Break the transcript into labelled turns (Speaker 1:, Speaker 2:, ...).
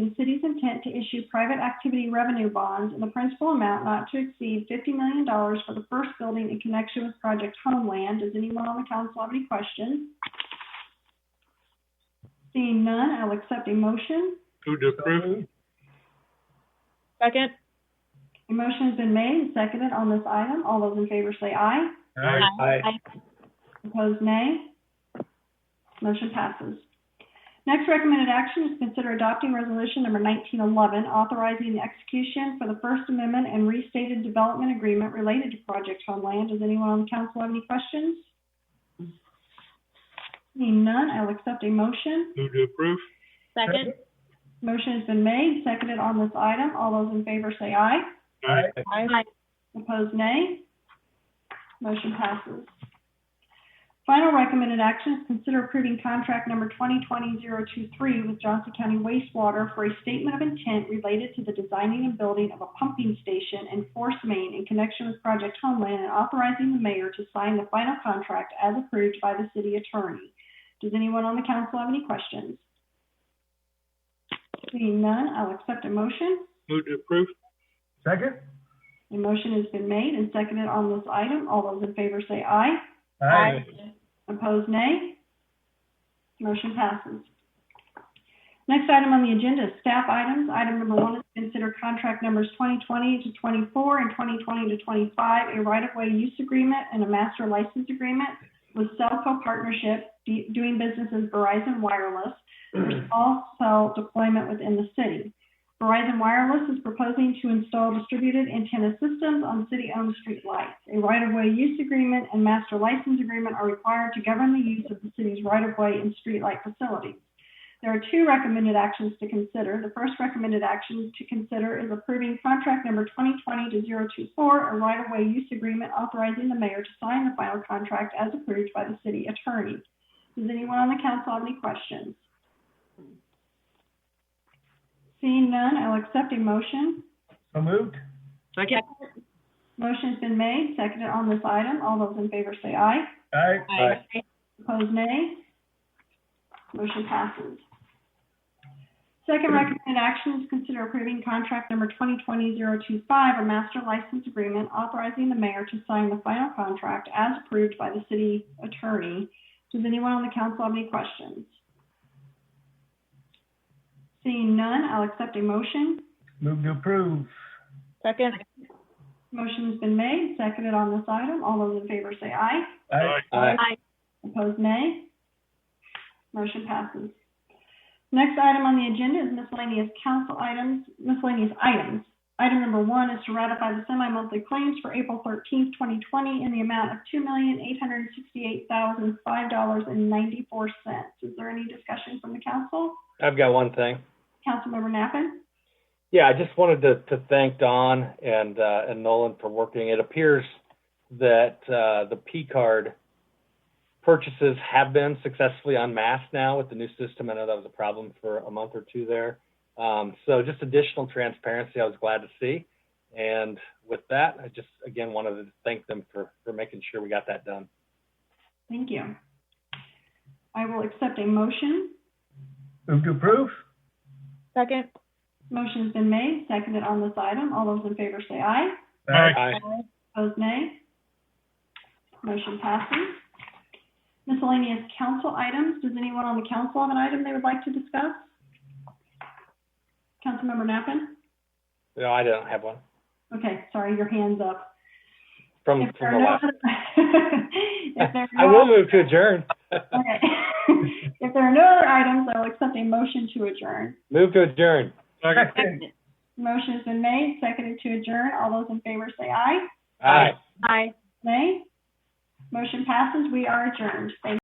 Speaker 1: the city's intent to issue private activity revenue bonds in the principal amount not to exceed $50 million for the first building in connection with Project Homeland. Does anyone on the council have any questions? Seeing none, I'll accept a motion.
Speaker 2: Move to approve.
Speaker 3: Second?
Speaker 1: A motion has been made and seconded on this item. All those in favor say aye.
Speaker 2: Aye.
Speaker 1: Opposed, nay. Motion passes. Next recommended action is consider adopting resolution number 1911, authorizing the execution for the First Amendment and restated development agreement related to Project Homeland. Does anyone on council have any questions? Seeing none, I'll accept a motion.
Speaker 2: Move to approve.
Speaker 3: Second?
Speaker 1: Motion has been made, seconded on this item. All those in favor say aye.
Speaker 2: Aye.
Speaker 3: Aye.
Speaker 1: Opposed, nay. Motion passes. Final recommended action is consider approving contract number 2020-023 with Johnson County Wastewater for a statement of intent related to the designing and building of a pumping station in Force Main in connection with Project Homeland and authorizing the mayor to sign the final contract as approved by the city attorney. Does anyone on the council have any questions? Seeing none, I'll accept a motion.
Speaker 2: Move to approve.
Speaker 4: Second?
Speaker 1: A motion has been made and seconded on this item. All those in favor say aye.
Speaker 3: Aye.
Speaker 1: Opposed, nay. Motion passes. Next item on the agenda is staff items. Item number one is to consider contract numbers 2020 to 24 and 2020 to 25, a right-of-way use agreement and a master license agreement with Cellco Partnership, d- doing business as Verizon Wireless, for small cell deployment within the city. Verizon Wireless is proposing to install distributed antenna systems on city-owned streetlights. A right-of-way use agreement and master license agreement are required to govern the use of the city's right-of-way and streetlight facilities. There are two recommended actions to consider. The first recommended action to consider is approving contract number 2020-024, a right-of-way use agreement authorizing the mayor to sign the final contract as approved by the city attorney. Does anyone on the council have any questions? Seeing none, I'll accept a motion.
Speaker 4: So moved?
Speaker 3: Second?
Speaker 1: Motion's been made, seconded on this item. All those in favor say aye.
Speaker 4: Aye.
Speaker 3: Aye.
Speaker 1: Opposed, nay. Motion passes. Second recommended action is consider approving contract number 2020-025, a master license agreement authorizing the mayor to sign the final contract as approved by the city attorney. Does anyone on the council have any questions? Seeing none, I'll accept a motion.
Speaker 4: Move to approve.
Speaker 3: Second?
Speaker 1: Motion's been made, seconded on this item. All those in favor say aye.
Speaker 2: Aye.
Speaker 3: Aye.
Speaker 1: Opposed, nay. Motion passes. Next item on the agenda is miscellaneous council items, miscellaneous items. Item number one is to ratify the semi-monthly claims for April thirteenth, twenty twenty, in the amount of two million, eight hundred and sixty-eight thousand, five dollars and ninety-four cents. Is there any discussion from the council?
Speaker 5: I've got one thing.
Speaker 1: Councilmember Nappan?
Speaker 5: Yeah, I just wanted to, to thank Don and, uh, and Nolan for working. It appears that, uh, the P card purchases have been successfully unmasked now with the new system. I know that was a problem for a month or two there. Um, so just additional transparency I was glad to see. And with that, I just, again, wanted to thank them for, for making sure we got that done.
Speaker 1: Thank you. I will accept a motion.
Speaker 4: Move to approve?
Speaker 3: Second?
Speaker 1: Motion's been made, seconded on this item. All those in favor say aye.
Speaker 2: Aye.
Speaker 5: Aye.
Speaker 1: Opposed, nay. Motion passes. Miscellaneous council items. Does anyone on the council have an item they would like to discuss? Councilmember Nappan?
Speaker 5: No, I don't have one
Speaker 1: Okay, sorry, your hand's up.
Speaker 5: from,
Speaker 1: If there
Speaker 5: from the
Speaker 1: are no
Speaker 5: last.
Speaker 1: other- If there are
Speaker 5: I
Speaker 1: no-
Speaker 5: will move to adjourn.
Speaker 1: Okay. If there are no other items, I will accept a motion to adjourn.
Speaker 5: Move to adjourn.
Speaker 2: Second.
Speaker 4: Second.
Speaker 1: Motion's been made, seconded to adjourn. All those in favor say aye.
Speaker 5: Aye.
Speaker 3: Aye.
Speaker 1: Nay. Motion passes. We are adjourned. Thank you.